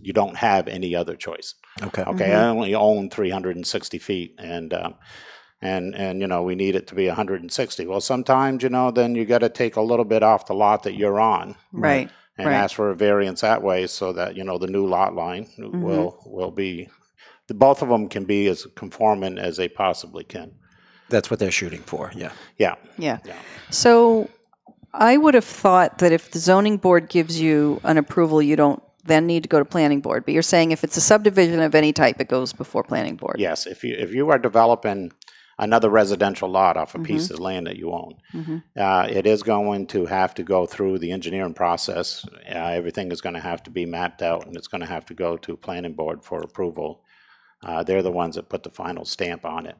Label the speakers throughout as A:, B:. A: you don't have any other choice.
B: Okay.
A: Okay,
C: Mm-hmm.
A: I only own 360 feet, and um, and and you know we need it to be 160. Well, sometimes you know then you got to take a little bit off the lot that you're on
B: Right.
C: Right.
A: and
C: Right.
A: ask for a variance that way, so that you know the new lot line
C: Mhm.
A: will will be. The, both of them can be as conforming as they possibly can.
B: That's what they're shooting for. Yeah.
A: Yeah,
C: Yeah.
A: Yeah.
C: So I would have thought that if the zoning board gives you an approval, you don't then need to go to planning board. But you're saying if it's a subdivision of any type, it goes before planning board.
A: yes. If you if you are developing another residential lot off a
C: Mhm.
A: piece of land that you own,
C: hmm
A: Uh, it is going to have to go through the engineering process. Uh, everything is going to have to be mapped out and it's going to have to go to planning board for approval. Uh, they're the ones that put the final stamp on it.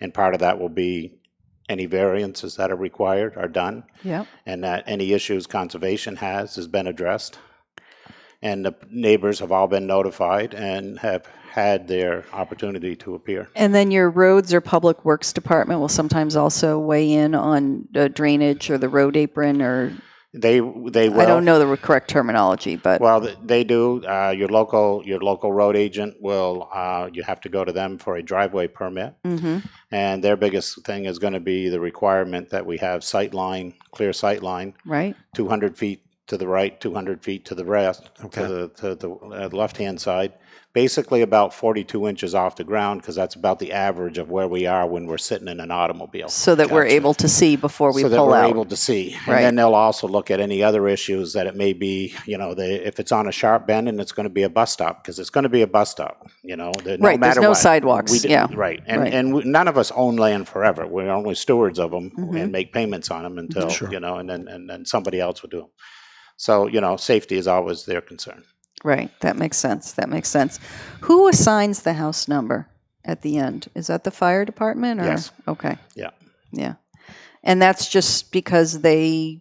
A: And part of that will be any variances that are required are done
C: Yep.
A: and that any issues conservation has has been addressed. And the neighbors have all been notified and have had their opportunity to appear.
C: And then your roads or public works department will sometimes also weigh in on uh, drainage or the road apron or
A: They, they will.
C: I don't know the correct terminology, but
A: Well, th- they do. Uh, your local your local road agent will. Uh, you have to go to them for a driveway permit,
C: hmm
A: and their biggest thing is going to be the requirement that we have sight line, clear sight line,
C: right?
A: 200 feet to the right, 200 feet to the rest,
B: Okay.
A: to the to the uh, left hand side. Basically, about 42 inches off the ground, because that's about the average of where we are when we're sitting in an automobile
C: So that we're
B: Gotcha.
C: able to see before we
A: so that
C: pull
A: we're
C: out.
A: able to see.
C: Right.
A: And then they'll also look at any other issues that it may be. You know, they, if it's on a sharp bend and it's going to be a bus stop because it's going to be a bus stop. You know, that no
C: right. There's
A: matter
C: no
A: what,
C: sidewalks.
A: we d-
C: yeah.
A: right. And
C: Right.
A: and we, none of us own land forever. We're only stewards of them
C: Mhm.
A: and make payments on them until
B: Sure.
A: you know, and then and then somebody else will do them. So you know, safety is always their concern.
C: Right. That makes sense. That makes sense. Who assigns the house number at the end? Is that the fire department or
A: Yes.
C: okay.
A: Yeah.
C: Yeah. And that's just because they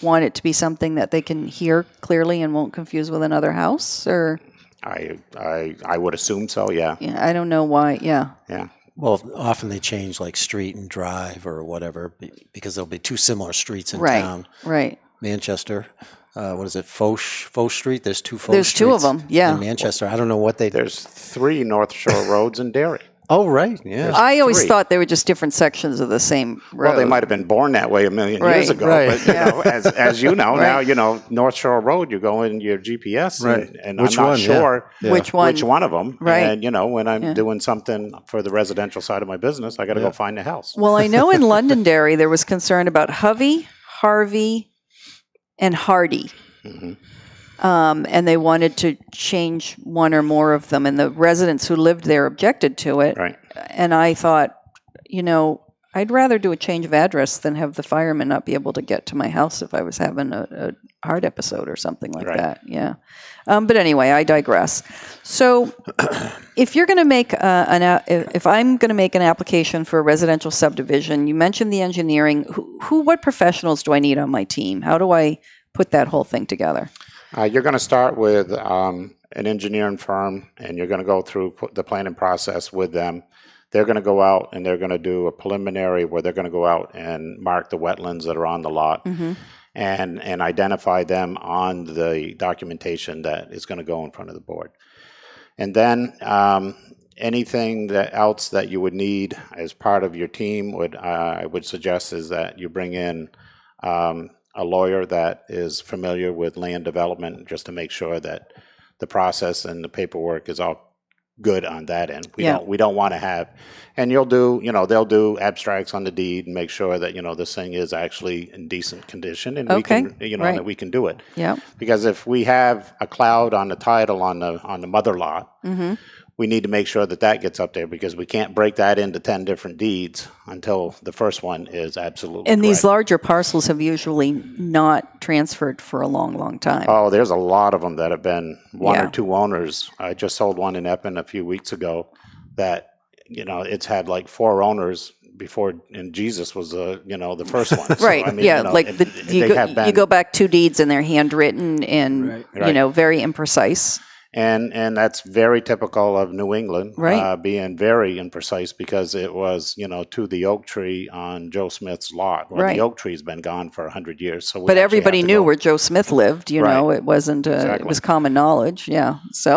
C: want it to be something that they can hear clearly and won't confuse with another house or
A: I I I would assume so. Yeah.
C: yeah, I don't know why. Yeah.
B: Well, often they change like street and drive or whatever be- because there'll be two similar streets in
C: Right.
A: Um,
B: town.
C: Right.
B: Manchester, uh, what is it? Foch Foch Street. There's two Foch.
C: There's two of
B: streets
C: them. Yeah.
B: In Manchester, I don't know what they.
A: There's three North Shore roads in Derry.
B: Oh, right. Yeah.
C: I always
A: three.
C: thought they were just different sections of the same road.
A: Well, they might have been born that way a million years
C: Right.
A: ago,
B: Right.
A: but you
C: Yeah.
A: know, as as you know now,
C: Right.
A: you know North Shore Road. You go in your GPS,
B: Right.
A: and, and
B: Which
A: I'm not
B: one, yeah.
A: sure
B: Yeah.
C: Which one?
A: which one of them.
C: Right.
A: And you know, when I'm
C: Yeah.
A: doing something for the residential side of my business, I got to
B: Yeah.
A: go find a house.
C: Well, I know in Londonderry there was concern about Hovey, Harvey, and Hardy.
A: Mhm.
C: um, and they wanted to change one or more of them. And the residents who lived there objected to it.
A: Right.
C: And I thought, you know, I'd rather do a change of address than have the firemen not be able to get to my house if I was having a, a heart episode or something like
A: Right.
C: that. Yeah. Um, but anyway, I digress. So, if you're going to make uh, an, a- if if I'm going to make an application for a residential subdivision, you mentioned the engineering. Who, who, what professionals do I need on my team? How do I put that whole thing together?
A: Uh, you're going to start with um, an engineering firm, and you're going to go through p- the planning process with them. They're going to go out and they're going to do a preliminary where they're going to go out and mark the wetlands that are on the lot.
C: Mm-hmm.
A: and and identify them on the documentation that is going to go in front of the board. And then um, anything that else that you would need as part of your team would uh, I would suggest is that you bring in um, a lawyer that is familiar with land development just to make sure that the process and the paperwork is all good on that end. We
C: Yeah.
A: don't we don't want to have and you'll do, you know, they'll do abstracts on the deed and make sure that, you know, this thing is actually in decent condition and
C: Okay,
A: we can, you know,
C: right.
A: that we can do it.
C: Yeah.
A: Because if we have a cloud on the title on the on the mother lot,
C: hmm
A: we need to make sure that that gets up there because we can't break that into 10 different deeds until the first one is absolutely
C: And these
A: correct.
C: larger parcels have usually not transferred for a long, long time.
A: Oh, there's a lot of them that have been one or
C: Yeah.
A: two owners. I just sold one in Epping a few weeks ago that, you know, it's had like four owners before, and Jesus was, uh, you know, the first one. So,
C: right.
A: I mean,
C: yeah.
A: you know,
C: like
A: it-
C: the,
A: it-
C: you,
A: they
C: go,
A: have
C: you
A: been-
C: go back two deeds and they're handwritten and
B: Right.
C: you
A: Right.
C: know very imprecise.
A: And, and that's very typical of New England
C: Right.
A: uh, being very imprecise because it was, you know, to the oak tree on Joe Smith's lot. Well,
C: Right.
A: the oak tree's been gone for 100 years. So we
C: But
A: actually have
C: everybody
A: to
C: knew
A: go-
C: where Joe Smith lived. You know, it wasn't. Uh, It
A: Exactly.
C: was common knowledge. Yeah. So.